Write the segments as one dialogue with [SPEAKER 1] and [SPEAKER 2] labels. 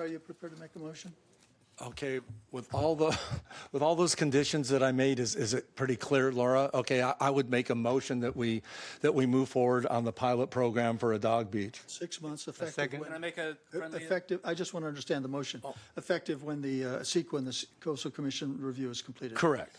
[SPEAKER 1] Are you prepared to make a motion?
[SPEAKER 2] Okay, with all the, with all those conditions that I made, is, is it pretty clear, Laura? Okay, I, I would make a motion that we, that we move forward on the pilot program for a dog beach.
[SPEAKER 1] Six months effective.
[SPEAKER 3] second.
[SPEAKER 1] when-
[SPEAKER 4] Can I make a friendly?
[SPEAKER 1] Effective, I just want to understand the motion. Effective when the uh, SEQA and the Coastal Commission review is completed.
[SPEAKER 2] Correct.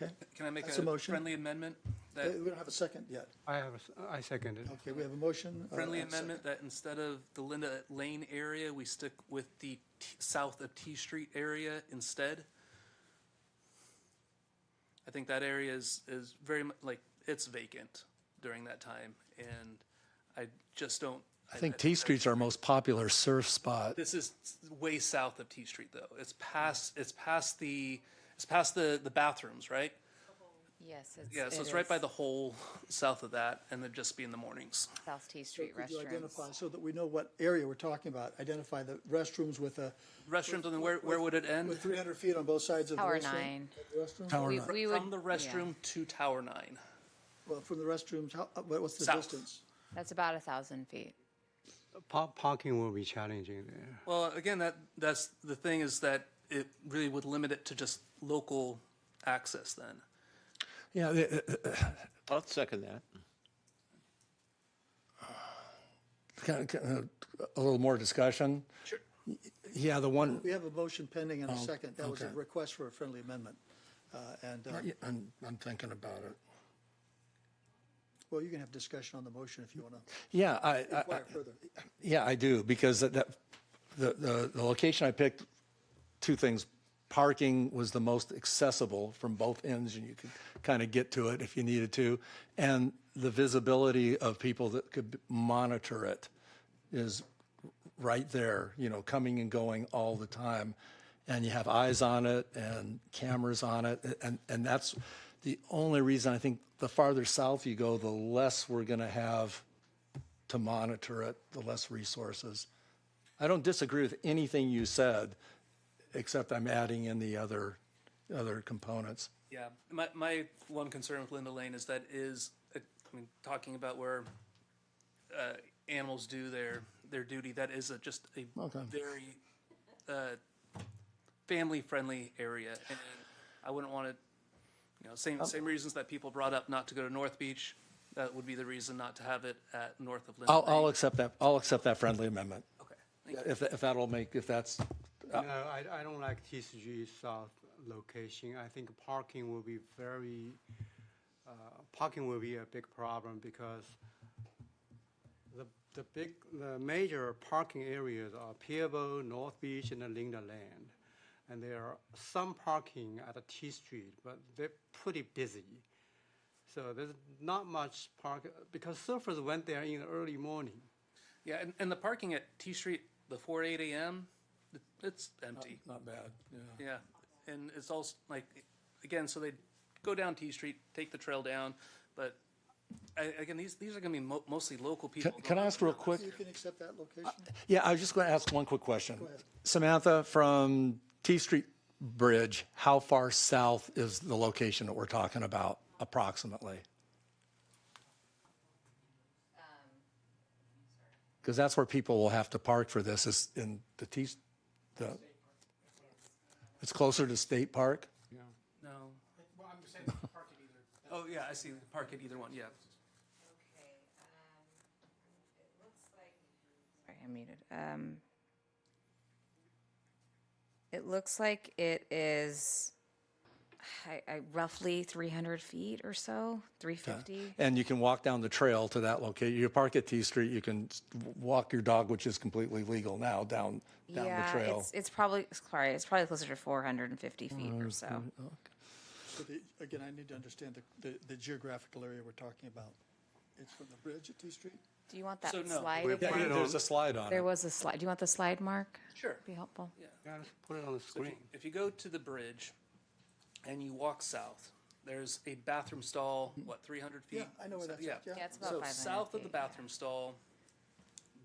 [SPEAKER 1] Okay?
[SPEAKER 4] Can I make
[SPEAKER 1] That's a
[SPEAKER 4] a
[SPEAKER 1] motion.
[SPEAKER 4] friendly amendment?
[SPEAKER 1] Uh,
[SPEAKER 4] That
[SPEAKER 1] We don't have a second yet.
[SPEAKER 3] I have, a s- I second it.
[SPEAKER 1] Okay, we have a motion. uh,
[SPEAKER 4] friendly
[SPEAKER 1] and a second.
[SPEAKER 4] amendment that instead of the Linda Lane area, we stick with the T- south of T Street area instead? I think that area is, is very much, like, it's vacant during that time, and I just don't.
[SPEAKER 2] I think T Street's our most popular surf spot.
[SPEAKER 4] This is way south of T Street, though. It's past, it's past the, it's past the, the bathrooms, right?
[SPEAKER 5] Yes, it's.
[SPEAKER 4] Yeah, so
[SPEAKER 5] it
[SPEAKER 4] it's right by
[SPEAKER 5] is
[SPEAKER 4] the hole south of that, and it'd just be in the mornings.
[SPEAKER 5] South T Street
[SPEAKER 1] Could you identify,
[SPEAKER 5] restrooms.
[SPEAKER 1] so that we know what area we're talking about, identify the restrooms with a,
[SPEAKER 4] Restrooms, and then where, where would it end?
[SPEAKER 1] with 300 feet on both sides of the restroom?
[SPEAKER 5] Tower nine.
[SPEAKER 1] The restroom?
[SPEAKER 2] Tower
[SPEAKER 5] We-
[SPEAKER 2] nine.
[SPEAKER 5] we
[SPEAKER 4] From
[SPEAKER 5] would-
[SPEAKER 4] the
[SPEAKER 5] yeah.
[SPEAKER 4] restroom to Tower Nine.
[SPEAKER 1] Well, from the restrooms, how, uh, what- what's the
[SPEAKER 4] South.
[SPEAKER 1] distance?
[SPEAKER 5] That's about a thousand feet.
[SPEAKER 3] Pa- Parking will be challenging there.
[SPEAKER 4] Well, again, that, that's, the thing is that it really would limit it to just local access then.
[SPEAKER 2] Yeah, the- uh,
[SPEAKER 6] I'll second that.
[SPEAKER 2] kind of- kind of, uh, a little more discussion. Sure. Yeah, the one,
[SPEAKER 1] We have a motion pending
[SPEAKER 2] Oh,
[SPEAKER 1] and a second. That was a request for a friendly amendment. Uh, And, uh,
[SPEAKER 2] I'm, I'm thinking about it.
[SPEAKER 1] well, you can have discussion on the motion if you Uh, want to
[SPEAKER 2] Yeah, I, I,
[SPEAKER 1] inquire further.
[SPEAKER 2] Yeah, I do, because that, that- the, the, the location I picked, two things. Parking was the most accessible from both ends, and you could kind of get to it if you needed to. And the visibility of people that could monitor it is right there, you know, coming and going all the time. And you have eyes on it and cameras on it. And, and that's the only reason I think the farther south you go, the less we're going to have to monitor it, the less resources. I don't disagree with anything you said, except I'm adding in the other, other components.
[SPEAKER 4] Yeah, my, my one concern with Linda Lane is that is, uh, I mean, talking about where, uh, animals do their, their duty, that is a, just a very, uh, family-friendly area. And I wouldn't want to, you know,
[SPEAKER 2] Oh.
[SPEAKER 4] same, same reasons that people brought up not to go to North Beach, that would be the reason not to have it at north of Linda
[SPEAKER 2] I'll,
[SPEAKER 4] Lane.
[SPEAKER 2] I'll accept that, I'll accept that friendly amendment.
[SPEAKER 4] Okay, thank you.
[SPEAKER 2] If, if that'll make, if that's,
[SPEAKER 3] No, I, I don't like TCG South location. I think parking will be very, uh, parking will be a big problem because the, the big, the major parking areas are Pierbo, North Beach, and Linda Land. And there are some parking at T Street, but they're pretty busy. So there's not much park, because surfers went there in the early morning.
[SPEAKER 4] Yeah, and, and the parking at T Street before eight AM, it- it's empty.
[SPEAKER 2] not bad, yeah.
[SPEAKER 4] Yeah, and it's also like, again, so they go down T Street, take the trail down, but I, again, these, these are gonna be mo- mostly local people.
[SPEAKER 2] Can, can I ask real quick?
[SPEAKER 1] You can accept that location?
[SPEAKER 2] Yeah, I was just going to ask one quick question. Samantha, from T Street Bridge, how far south is the location that we're talking about approximately?
[SPEAKER 5] Um,
[SPEAKER 2] Because that's where people will have to park for this, is in the T, the, it's closer to State Park?
[SPEAKER 4] No. Well, I'm saying park it either. Oh, yeah, I see, park it either one, yeah.
[SPEAKER 5] Sorry, I muted. Um, it looks like it is I, I roughly three hundred feet or so, three fifty.
[SPEAKER 2] And you can walk down the trail to that location. You park at T Street, you can s- w- walk your dog, which is completely legal now, down, down the
[SPEAKER 5] Yeah,
[SPEAKER 2] trail.
[SPEAKER 5] it's, it's probably, sorry, it's probably closer to four hundred and fifty feet or so.
[SPEAKER 2] oh.
[SPEAKER 1] So the- Again, I need to understand the- the, the geographical area we're talking about. It's from the bridge at T Street?
[SPEAKER 5] Do you want that
[SPEAKER 4] So, no.
[SPEAKER 5] slide?
[SPEAKER 2] Yeah,
[SPEAKER 5] again?
[SPEAKER 2] There's a slide on it.
[SPEAKER 5] There was a slide. Do you want the slide, Mark?
[SPEAKER 4] Sure.
[SPEAKER 5] Be helpful.
[SPEAKER 3] Yeah, let's put it on the
[SPEAKER 4] If you-
[SPEAKER 3] screen.
[SPEAKER 4] If you go to the bridge and you walk south, there's a bathroom stall,
[SPEAKER 2] Mm-hmm.
[SPEAKER 4] what, three hundred feet?
[SPEAKER 1] Yeah, I know where that's at, yeah.
[SPEAKER 5] Yeah, it's about
[SPEAKER 1] So
[SPEAKER 5] five hundred
[SPEAKER 4] South of the
[SPEAKER 5] feet.
[SPEAKER 4] bathroom stall,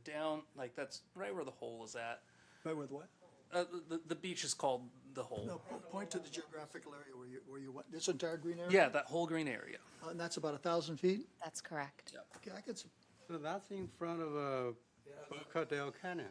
[SPEAKER 4] down, like, that's right where the hole is at.
[SPEAKER 1] Right with what?
[SPEAKER 4] Uh, the- the, the beach is called the hole.
[SPEAKER 1] No, po- point to the geographical area where you, where you went, this entire green area?
[SPEAKER 4] Yeah, that whole green area.
[SPEAKER 1] And that's about a 1,000 feet?
[SPEAKER 5] That's correct.
[SPEAKER 1] Okay, I could, s-
[SPEAKER 3] So that's in front of a Boca del Canyon.